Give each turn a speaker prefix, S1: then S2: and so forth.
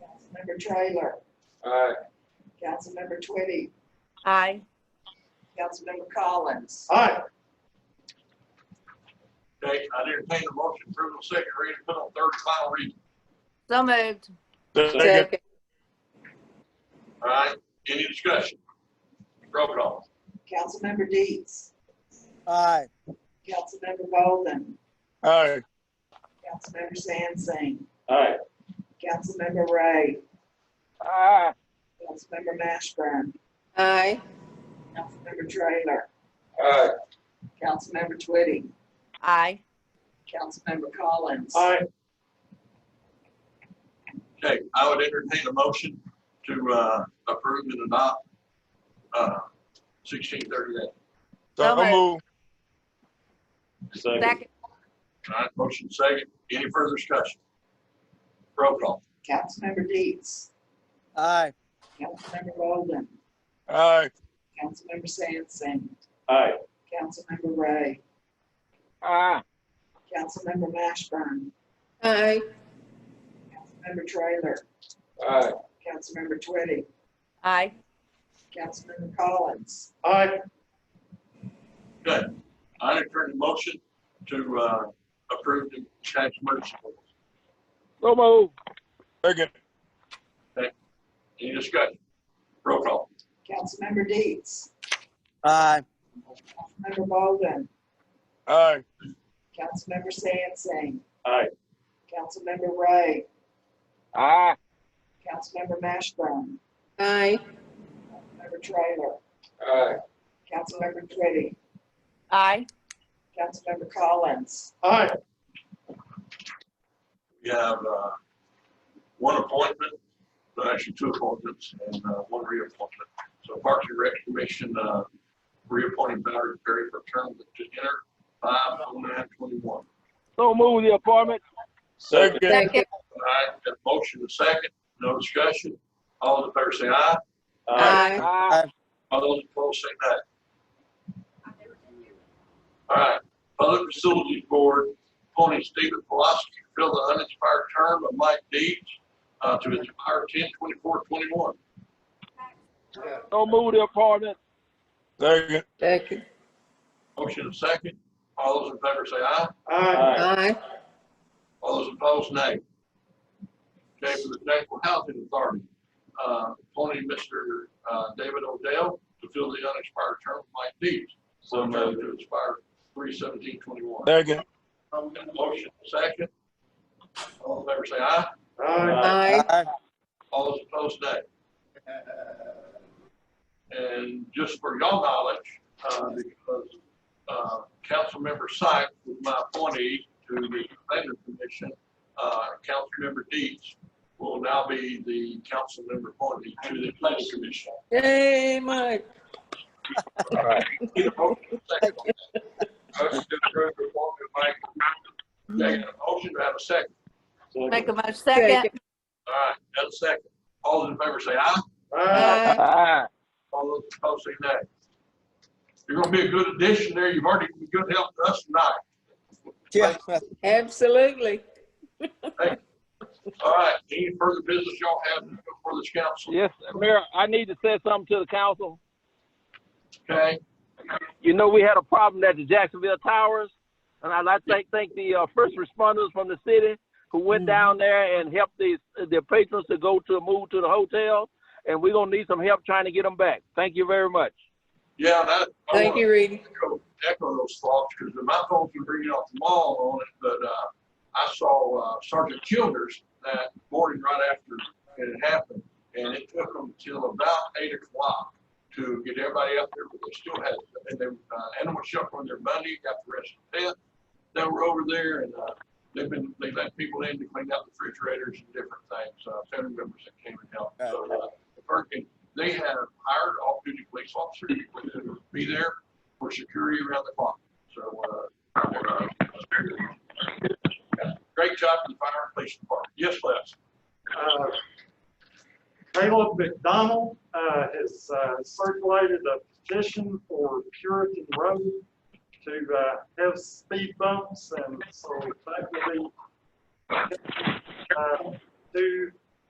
S1: Councilmember Trailer,
S2: Aye.
S1: Councilmember Twitty,
S3: Aye.
S1: Councilmember Collins.
S2: Aye. Okay, I entertain the motion to approve on second reading, put on third and final reading.
S3: So moved.
S4: Second.
S2: All right, any discussion? Roll call.
S1: Councilmember Deets,
S4: Aye.
S1: Councilmember Bolden,
S4: Aye.
S1: Councilmember Sansing,
S2: Aye.
S1: Councilmember Ray,
S4: Aye.
S1: Councilmember Mashburn,
S3: Aye.
S1: Councilmember Trailer,
S2: Aye.
S1: Councilmember Twitty,
S3: Aye.
S1: Councilmember Collins.
S2: Okay, I would entertain a motion to, uh, approve and adopt, uh, sixteen thirty-eight.
S3: So
S4: So move.
S3: Second.
S2: All right, motion second, any further discussion? Roll call.
S1: Councilmember Deets,
S4: Aye.
S1: Councilmember Bolden,
S4: Aye.
S1: Councilmember Sansing,
S2: Aye.
S1: Councilmember Ray,
S4: Aye.
S1: Councilmember Mashburn,
S3: Aye.
S1: Councilmember Trailer,
S2: Aye.
S1: Councilmember Twitty,
S3: Aye.
S1: Councilmember Collins.
S2: Aye. Good. I entertain a motion to, uh, approve the tax merge.
S4: So move. Second.
S2: Any discussion? Roll call.
S1: Councilmember Deets,
S4: Aye.
S1: Councilmember Bolden,
S4: Aye.
S1: Councilmember Sansing,
S2: Aye.
S1: Councilmember Ray,
S4: Aye.
S1: Councilmember Mashburn,
S3: Aye.
S1: Councilmember Trailer,
S2: Aye.
S1: Councilmember Twitty,
S3: Aye.
S1: Councilmember Collins,
S2: Aye. We have, uh, one appointment, well, actually two appointments and, uh, one reappointment. So Parks and Rec Commission, uh, reappointing Valerie Perry for term to enter five oh nine twenty-one.
S4: So move the appointment. Second.
S3: Second.
S2: All right, got a motion and a second, no discussion. All in favor say aye.
S3: Aye.
S4: Aye.
S2: All those opposed say nay. All right, Public Facilities Board, appointing Stephen Pulaski to fill the unexpired term of Mike Deeds uh, to expire ten twenty-four twenty-one.
S4: So move the appointment. Second.
S3: Second.
S2: Motion and second. All those in favor say aye.
S4: Aye.
S3: Aye.
S2: All those opposed, nay. Okay, for the Jacksonville Housing Authority, uh, appointing Mr. uh, David Odell to fill the unexpired term of Mike Deeds. So moved. To expire three seventeen twenty-one.
S4: Second.
S2: Motion second. All in favor say aye.
S3: Aye.
S2: All those opposed, nay. And just for y'all knowledge, uh, because, uh, Councilmember Sykes was my appointee to the planning commission, uh, Councilmember Deeds will now be the council member appointee to the planning commission.
S3: Yay, Mike.
S2: Need a motion second. Motion to approve the appointment, Mike. Taking a motion to have a second.
S3: Make a motion second.
S2: All right, got a second. All those in favor say aye.
S3: Aye.
S4: Aye.
S2: All those opposed say nay. You're gonna be a good addition there. You've already been good help to us tonight.
S3: Absolutely.
S2: All right, any further business y'all have before this council?
S5: Yes, Mayor, I need to say something to the council.
S2: Okay,
S5: You know, we had a problem at the Jacksonville Towers, and I'd like to thank- thank the uh, first responders from the city who went down there and helped these, their patrons to go to, move to the hotel, and we're gonna need some help trying to get them back. Thank you very much.
S2: yeah, and I, I
S3: Thank
S2: want
S3: you, Reedy.
S2: to echo those thoughts, because my folks were bringing off the mall on it, but, uh, I saw uh, Sergeant Childers that morning right after it had happened, and it took them till about eight o'clock to get everybody out there, but they still had, and they, uh, animal shelter on their Monday, got the rest of the tent. They were over there and, uh, they've been, they let people in to clean out the refrigerators and different things, uh, family members that came and helped. So, uh, Perkin, they have hired off-duty police officers to be there for security around the clock, so, uh, they're, uh, Great job to the fire and police department. Yes, Les.
S6: Uh, Caleb McDonald uh, has uh, circulated a petition for Puritan Road to uh, have speed bumps, and so that will be uh, due